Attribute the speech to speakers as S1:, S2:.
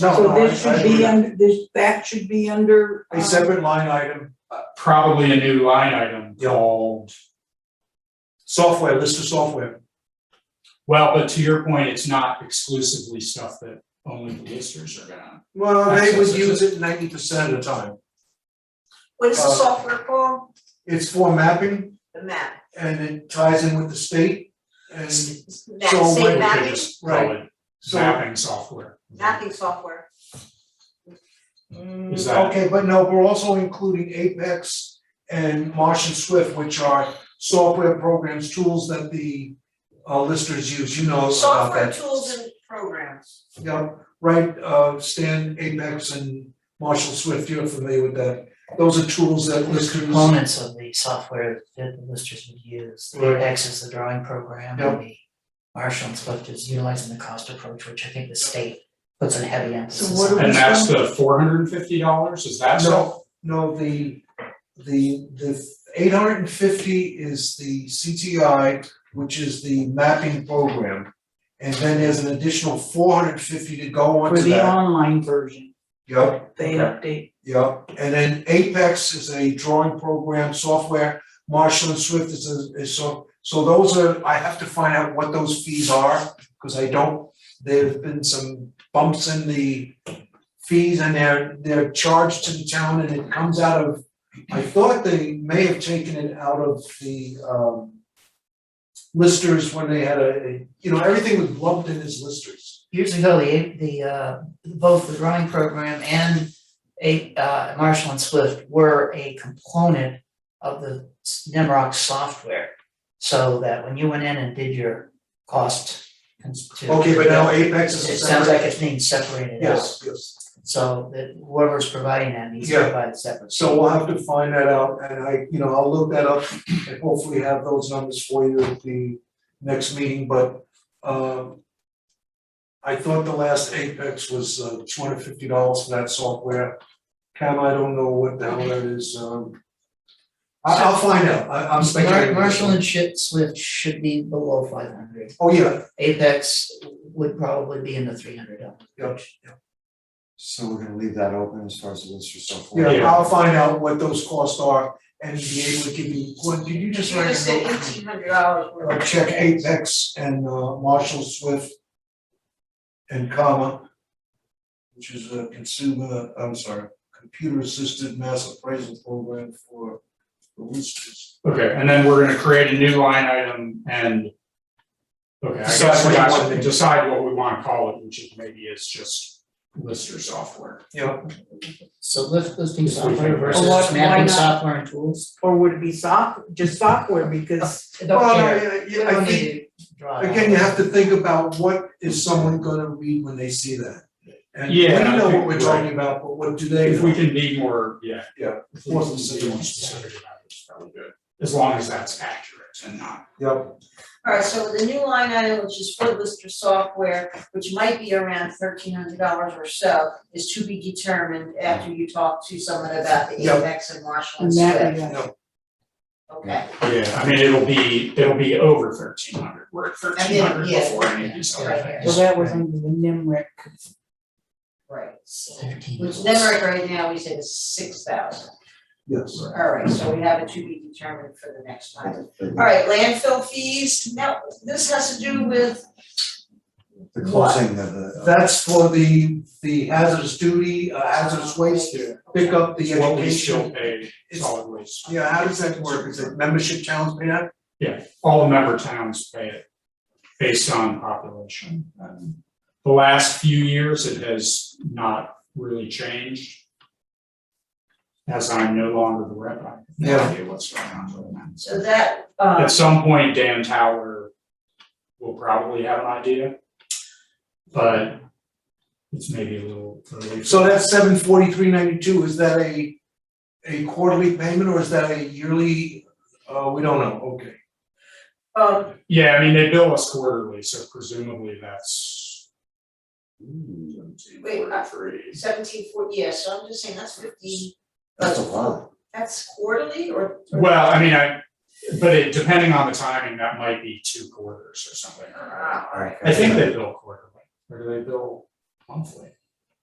S1: No,
S2: So
S1: no,
S2: this
S1: I- I
S2: should be
S1: agree.
S2: under, this, that should be under. um,
S1: A separate line item,
S3: probably a new line item
S1: Yeah.
S3: called,
S1: software, list of software,
S3: well, but to your point, it's not exclusively stuff that only the listers are gonna.
S1: well, they would
S3: Access is
S1: use it ninety percent of the time.
S4: What is the
S1: Uh,
S4: software called?
S1: It's for mapping
S4: The map.
S1: and it ties in with the state and
S4: Map,
S1: so
S3: We
S4: same
S3: could
S1: when-
S4: mapping,
S3: just call it
S1: so,
S3: Mapping software.
S4: mapping software.
S3: Is that,
S1: okay, but no, we're also including Apex and Martian Swift, which are software programs, tools that the uh listers use, you know about
S4: Software
S1: that.
S4: tools and programs.
S1: Yeah, right, uh Stan, Apex and Marshall Swift, you're familiar with that. Those are tools that
S5: There's
S1: listers,
S5: components of the software that the listers would use, the
S1: Right.
S5: Apex is the drawing program, and the Marshall and Swift is utilizing the cost approach, which I think the state puts a heavy emphasis on.
S2: what do we-
S3: and that's the four hundred and fifty dollars, is that so?
S1: no, no, the the the eight hundred and fifty is the CTI, which is the mapping program. And then there's an additional four hundred and fifty to go
S2: For
S1: onto
S2: the
S1: that.
S2: online version,
S1: Yep.
S2: they update.
S1: Yep, and then Apex is a drawing program software, Marshall and Swift is a, is so, so those are, I have to find out what those fees are, cause I don't, there've been some bumps in the fees and they're, they're charged to the town and it comes out of, I thought they may have taken it out of the, um, listers when they had a, a- you know, everything was lumped in as listers.
S5: Years ago, the the uh both the drawing program and a uh Marshall and Swift were a component of the Nemrock software. So that when you went in and did your cost cons- to.
S1: Okay, but now Apex is a
S5: It sounds like
S1: separate-
S5: it's being separated out.
S1: Yes, yes.
S5: So that whoever's providing that needs to
S1: Yeah.
S5: provide separate.
S1: So we'll have to find that out and I, you know, I'll look that up and hopefully have those numbers for you at the next meeting, but um. I thought the last Apex was uh two hundred fifty dollars for that software. Cam, I don't know what the hell that is, um. I I'll find out, I I'm
S5: Mar-
S1: speculating.
S5: Marshall and Shi- Swift should be below five hundred.
S1: Oh, yeah,
S5: Apex would probably be in the three hundred dollars.
S1: Yep.
S6: So we're gonna leave that open as far as the list or so forth.
S1: yeah,
S3: Yeah.
S1: I'll find out what those costs are and be able to give you, what, did you just
S4: You
S1: write a
S4: just said
S1: note?
S4: eighteen hundred dollars worth.
S1: uh, check Apex and uh, Marshall Swift and comma, which is a consumer, I'm sorry, computer assisted mass appraisal program for the listers.
S3: Okay, and then we're gonna create a new line item and. Okay, I
S1: Decide what
S3: guess we
S1: you
S3: got
S1: want
S3: to
S1: to-
S3: decide what we wanna call it, which is maybe is just lister software.
S1: Yeah,
S5: So lift listing
S3: Yes, we
S5: software
S3: can.
S5: versus
S2: Or what- why
S5: mapping
S2: not?
S5: software and tools.
S2: Or would it be soft, just software, because
S5: I don't
S1: well,
S5: care.
S1: I-
S5: You
S1: I- I
S5: don't
S1: think,
S5: need to draw it out.
S1: again, you have to think about what is someone gonna read when they see that? And we
S3: Yeah, I
S1: know what
S3: think
S1: we're
S3: you're
S1: talking about, but what do they
S3: If we
S1: know?
S3: can be more, yeah.
S1: Yeah.
S3: If we can be more specific about it, it's probably good, as long as that's accurate and not
S1: Yep,
S4: Alright, so the new line item, which is for lister software, which might be around thirteen hundred dollars or so, is to be determined after you talk to someone about the
S1: Yeah.
S4: Apex and Marshall
S2: and
S4: and
S2: that,
S4: Swift,
S2: yeah.
S4: okay?
S3: Yeah, I mean, it'll be, it'll be over thirteen hundred, we're at thirteen hundred
S4: yeah.
S3: before any of these other
S4: Right.
S3: things.
S2: So that was under the NIMRIC.
S4: Right, so,
S5: Thirteen.
S4: which Nemrick right now, we said is six thousand,
S1: yes.
S4: alright, so we have it to be determined for the next time. Alright, landfill fees, now, this has to do with,
S6: The closing of the. uh,
S1: That's for the the hazardous duty, uh, hazardous waste, pick up the education.
S3: What we still pay
S1: It's-
S3: solid waste.
S1: Yeah, how does that work? Is it membership challenge pay that?
S3: Yeah, all the member towns pay it based on population. Um, The last few years, it has not really changed. As I'm no longer the rep, I have no
S1: Yeah.
S3: idea what's going on with that.
S4: so that, um.
S3: At some point, Dan Tower will probably have an idea. But it's maybe a little early.
S1: So that's seven forty-three ninety-two, is that a a quarterly payment or is that a yearly? Uh, we don't know, okay.
S4: Um,
S3: Yeah, I mean, they bill us quarterly, so presumably that's.
S4: Wait, uh,
S3: Forty-three.
S4: seventeen forty, yeah, so I'm just saying that's fifteen,
S6: That's a lot.
S4: that's quarterly or?
S3: Well, I mean, I, but it, depending on the timing, that might be two quarters or something.
S4: Ah,
S3: I think they bill quarterly, or do they bill monthly?